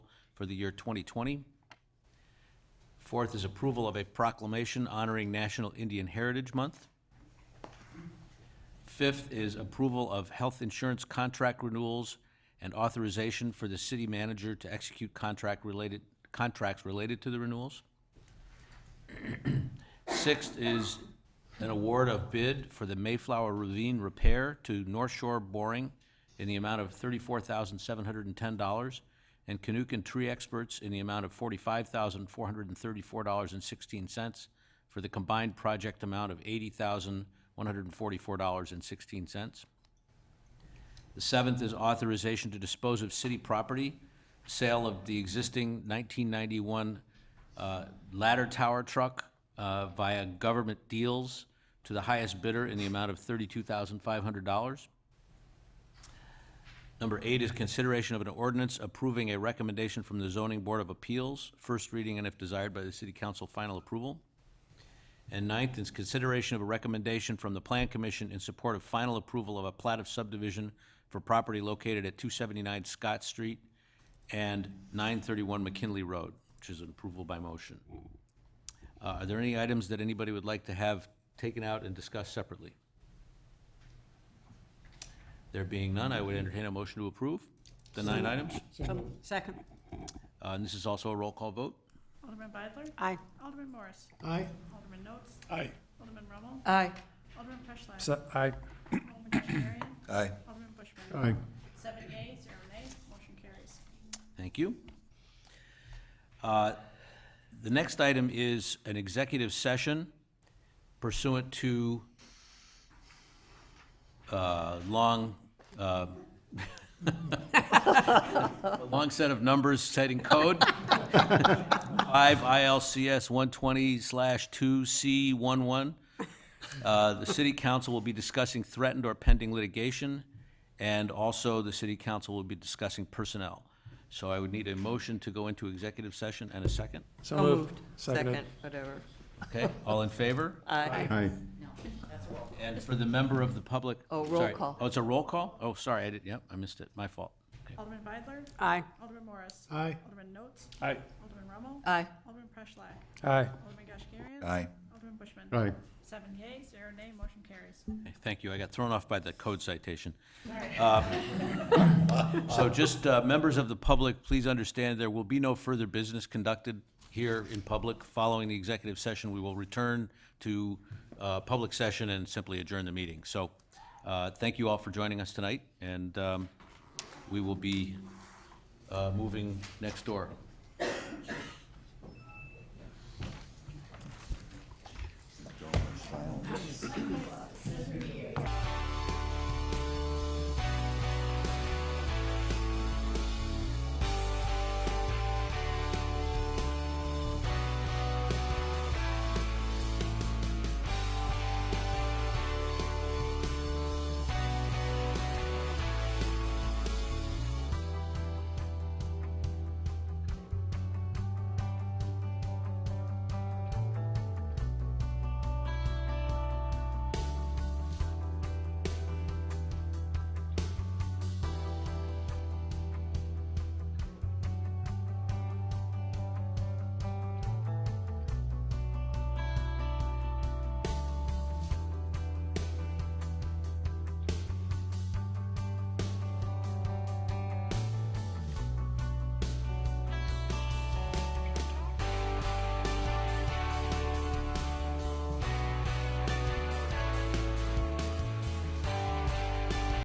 for the year 2020. Fourth is approval of a proclamation honoring National Indian Heritage Month. Fifth is approval of health insurance contract renewals and authorization for the city manager to execute contract related, contracts related to the renewals. Sixth is an award of bid for the Mayflower Ravine Repair to North Shore Boring in the amount of thirty-four thousand seven hundred and ten dollars, and Canuck Tree Experts in the amount of forty-five thousand four hundred and thirty-four dollars and sixteen cents for the combined project amount of eighty thousand one hundred and forty-four dollars and sixteen cents. The seventh is authorization to dispose of city property, sale of the existing 1991 uh, ladder tower truck uh, via government deals to the highest bidder in the amount of $32,500. Number eight is consideration of an ordinance approving a recommendation from the Zoning Board of Appeals, first reading and if desired by the city council, final approval. And ninth is consideration of a recommendation from the Plan Commission in support of final approval of a plat of subdivision for property located at 279 Scott Street and 931 McKinley Road, which is an approval by motion. Uh, Are there any items that anybody would like to have taken out and discussed separately? There being none, I would entertain a motion to approve the nine items. Second. Uh, And this is also a roll call vote. Alderman Beidler? Aye. Alderman Morris? Aye. Alderman Notes? Aye. Alderman Rommel? Aye. Alderman Preschlack? Aye. Alderman Kashmirian? Aye. Alderman Bushman? Aye. Seven yea, zero nay, motion carries. Thank you. Uh, The next item is an executive session pursuant to uh, long, uh, a long set of numbers citing code. 5 ILCS 120/2C11. Uh, The city council will be discussing threatened or pending litigation, and also the city council will be discussing personnel. So I would need a motion to go into executive session and a second. So moved. Second, whatever. Okay, all in favor? Aye. Aye. And for the member of the public? Oh, roll sorry. call. Oh, it's a roll call? Oh, sorry, I did, yep, I missed it, my fault. Okay. Alderman Beidler? Aye. Alderman Morris? Aye. Alderman Notes? Aye. Alderman Rommel? Aye. Alderman Preschlack? Aye. Alderman Kashmirian? Aye. Alderman Bushman? Aye. Seven yea, zero nay, motion carries. Okay, Thank you, I got thrown off by the code citation. Uh, So just, uh, members of the public, please understand, there will be no further business conducted here in public. Following the executive session, we will return to uh, public session and simply adjourn the meeting. So uh, thank you all for joining us tonight, and um, we will be uh, moving next door.